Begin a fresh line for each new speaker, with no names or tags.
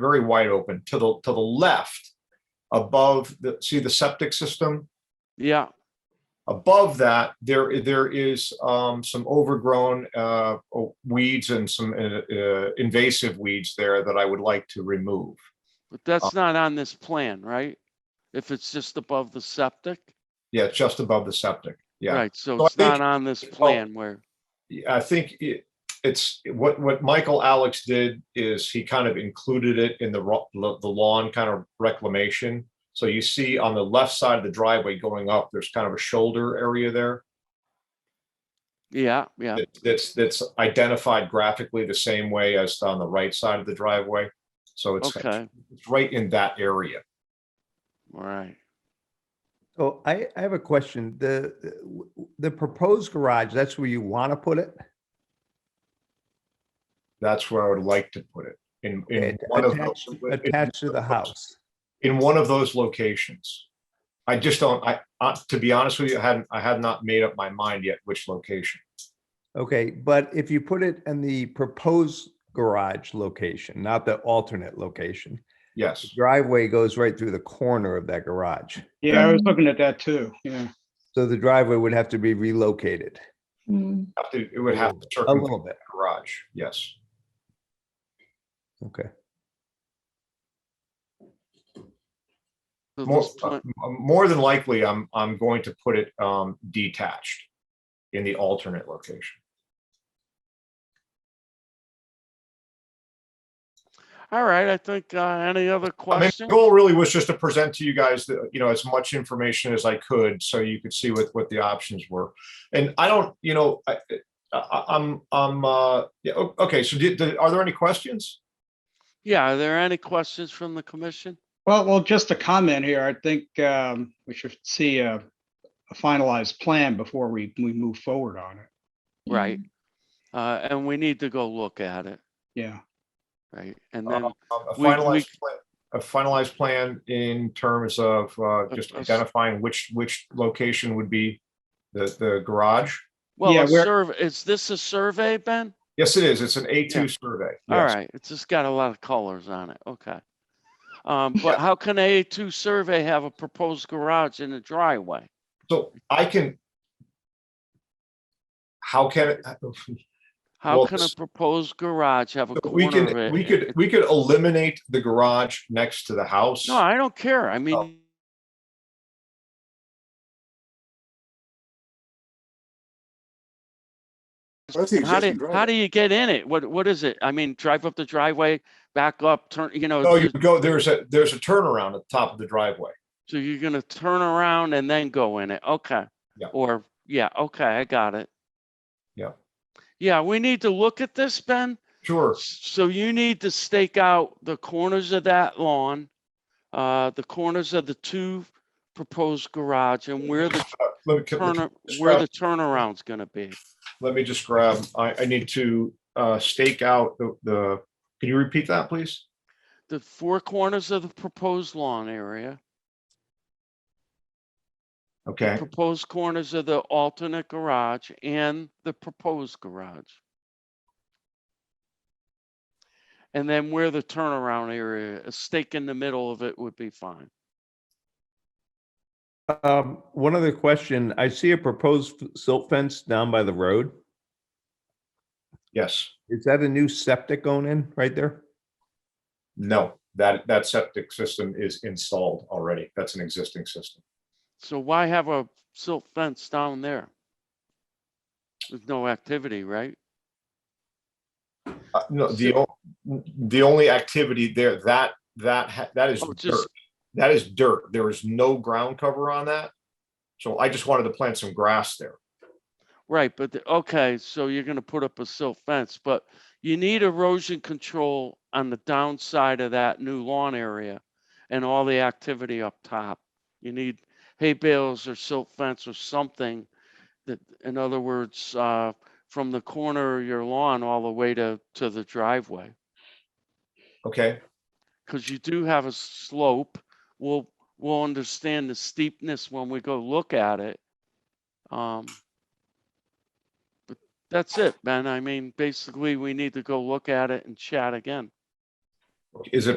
very wide open to the, to the left above the, see the septic system?
Yeah,
Above that, there, there is um, some overgrown uh, weeds and some uh, uh, invasive weeds there that I would like to remove.
but
Uh,
that's not on this plan, right? If it's just above the septic,
Yeah, it's just above the septic. Yeah.
right, so
So I
it's not
think-
on this
well-
plan where,
I think it, it's what, what Michael Alex did is he kind of included it in the ro- lo- the lawn kind of reclamation. So you see on the left side of the driveway going up, there's kind of a shoulder area there.
yeah, yeah,
that- That's, that's identified graphically the same way as on the right side of the driveway. So it's,
okay,
it's right in that area.
all right.
So I, I have a question. The, the- w- w- the proposed garage, that's where you want to put it?
That's where I would like to put it in, in
It-
one of those.
Attached attached to the house?
in one of those locations. I just don't, I, uh, to be honest with you, I hadn't, I had not made up my mind yet which location.
Okay, but if you put it in the proposed garage location, not the alternate location,
Yes,
driveway goes right through the corner of that garage.
Yeah, I was looking at that too, yeah.
So the driveway would have to be relocated
Mm.
have to- it would have to
a
circumvent
little bit.
the garage, yes.
Okay.
So
More,
this
uh,
plan,
m- more than likely, I'm, I'm going to put it um, detached in the alternate location.
all right, I think, uh, any other
I mean, the
questions?
goal really was just to present to you guys, the- you know, as much information as I could, so you could see what, what the options were. And I don't, you know, I, I, I'm, I'm, uh, yeah, o- okay, so did, did- are there any questions?
Yeah, are there any questions from the commission?
Well, well, just a comment here. I think um, we should see a a finalized plan before we, we move forward on it.
Right, uh, and we need to go look at it,
Yeah.
right? And
Um,
then
A
we- we-
finalized, pla- a finalized plan in terms of uh, just
us-
identifying which, which location would be the, the garage.
Well,
Yeah,
a
we're-
survey, is this a survey, Ben?
Yes, it is. It's an A2 survey.
All
Yes.
right, it's just got a lot of colors on it, okay. Um,
Yeah.
but how can a two survey have a proposed garage in a driveway?
So I can. How can, it?
How
Well,
can a
s-
proposed garage have a
so we
corner of
can,
it?
we could, we could eliminate the garage next to the house.
No, I don't care, I
Oh,
mean.
That's the
How
existing
do, how
driveway.
do you get in it? What, what is it? I mean, drive up the driveway, back up, turn, you know,
No, Oh, you
there's-
go, there's a, there's a turnaround at the top of the driveway.
so you're gonna turn around and then go in it, okay?
Yeah.
Or, yeah, okay, I got it.
Yeah.
Yeah, we need to look at this, Ben.
Sure.
So you need to stake out the corners of that lawn, uh, the corners of the two proposed garage and where the
Uh, Let me, can-
turner, where the turnaround's gonna be.
let me just grab, I, I need to uh, stake out the, the, can you repeat that, please?
The four corners of the proposed lawn area,
Okay,
proposed corners of the alternate garage and the proposed garage. And then where the turnaround area, a stake in the middle of it would be fine.
Um, one other question. I see a proposed f- silt fence down by the road.
yes,
Is that a new septic going in right there?
no, that, that septic system is installed already. That's an existing system.
So why have a silt fence down there? With no activity, right?
Uh, No, the, o- the only activity there, that, that, ha- that is
Oh,
dirt.
just-
That is dirt. There is no ground cover on that. So I just wanted to plant some grass there.
Right, but, the- okay, so you're gonna put up a silt fence, but you need erosion control on the downside of that new lawn area and all the activity up top. You need hay bales or silt fence or something that, in other words, uh, from the corner of your lawn all the way to, to the driveway.
Okay,
because you do have a slope. We'll, we'll understand the steepness when we go look at it. Um, but that's it, Ben. I mean, basically, we need to go look at it and chat again.
is it